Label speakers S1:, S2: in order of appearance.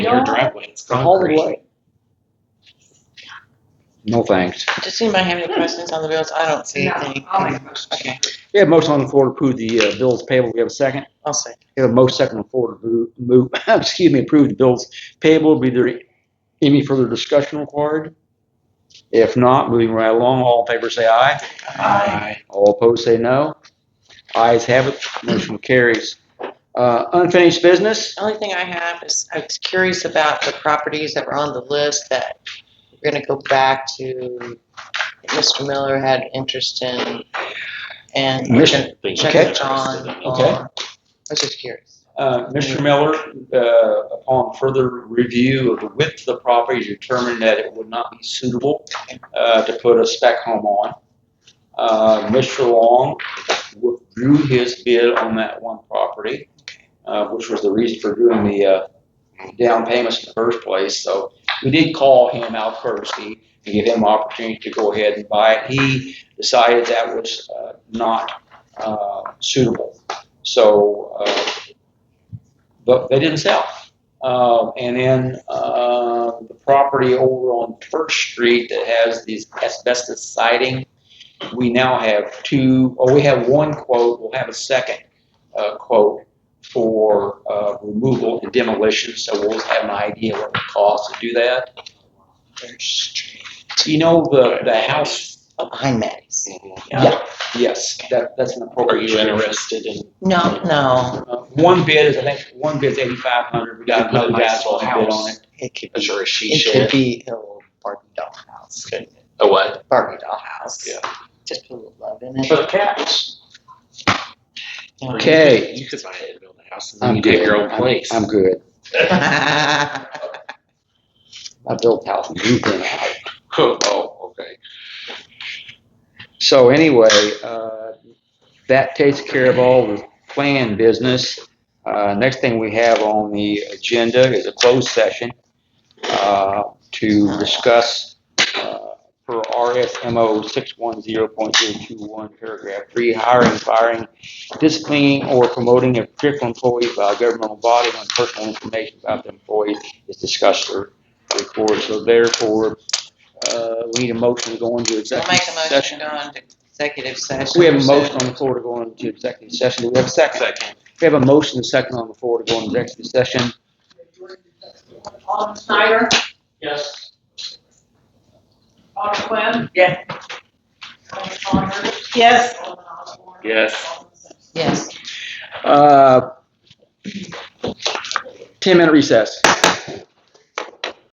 S1: your
S2: not?
S1: driveway. It's
S2: The Hollywood.
S1: concrete. No thanks.
S3: Does anybody have any questions on the bills? I don't see
S2: No,
S3: anything.
S2: I'll make a motion.
S3: Okay,
S1: We have a motion on the floor to approve the uh, bills payable. We have a second.
S3: I'll say.
S1: We have a motion second on the floor to move- move, excuse me, approve the bills payable. Be there any further discussion required? If not, moving right along, all in favor say aye.
S2: Aye.
S1: All opposed say no. Ayes have it, motion carries. Uh, Unfinished business?
S3: The only thing I have is, I was curious about the properties that were on the list that we're gonna go back to, that Mr. Miller had interest in, and we're
S1: Mr.
S3: gonna check
S1: Okay.
S3: with John.
S1: Okay.
S3: on- I was just curious.
S1: Uh, Mr. Miller, uh, upon further review of the width of the property, determined that it would not be suitable uh, to put a spec home on. Uh, Mr. Long withdrew his bid on that one property, uh, which was the reason for doing the uh, down payments in the first place. So we did call him out first to give him opportunity to go ahead and buy it. He decided that was uh, not uh, suitable. So uh, but they didn't sell. Um, and then uh, the property over on First Street that has these asbestos siding, we now have two, or we have one quote, we'll have a second uh, quote for uh, removal and demolition, so we'll have an idea what it costs to do that. You know, the, the house,
S3: Oh, behind Maddie's.
S1: yeah, yes, that, that's an
S4: Are
S1: appropriate.
S4: you interested in?
S3: No, no,
S1: Uh, One bid is, I think, one bid's eighty-five hundred, we got another guy's on bid on it.
S3: it could
S4: Is
S3: be,
S4: there a she
S3: it could
S4: shed?
S3: be a little Barbie doll house.
S4: A what?
S3: Barbie doll house.
S4: Yeah.
S3: Just put a little love in it.
S4: For the cats.
S1: Okay.
S4: You could buy it and build a house and then you get your own place.
S1: I'm good.
S3: All
S1: I built house and moved in house.
S4: Oh, okay.
S1: So anyway, uh, that takes care of all the plan business. Uh, next thing we have on the agenda is a closed session, uh, to discuss, uh, per RSMO six one zero point zero two one, paragraph three, hiring, firing, disciplining, or promoting a particular employee by a governmental body on personal information about the employee is discussed or recorded. So therefore, uh, we need a motion to go into
S3: I'll make
S1: executive
S3: a
S1: session.
S3: motion to go into executive session.
S1: We have a motion on the floor to go into executive session. Do we have a second?
S4: Second.
S1: We have a motion and second on the floor to go into executive session.
S5: Alden Snyder?
S4: Yes.
S5: Alden Quinn?
S3: Yeah.
S5: Alden Saunders?
S3: Yes.
S5: Alden Osborne?
S4: Yes.
S5: Alden Simpson?
S3: Yes.
S1: Uh, ten minute recess.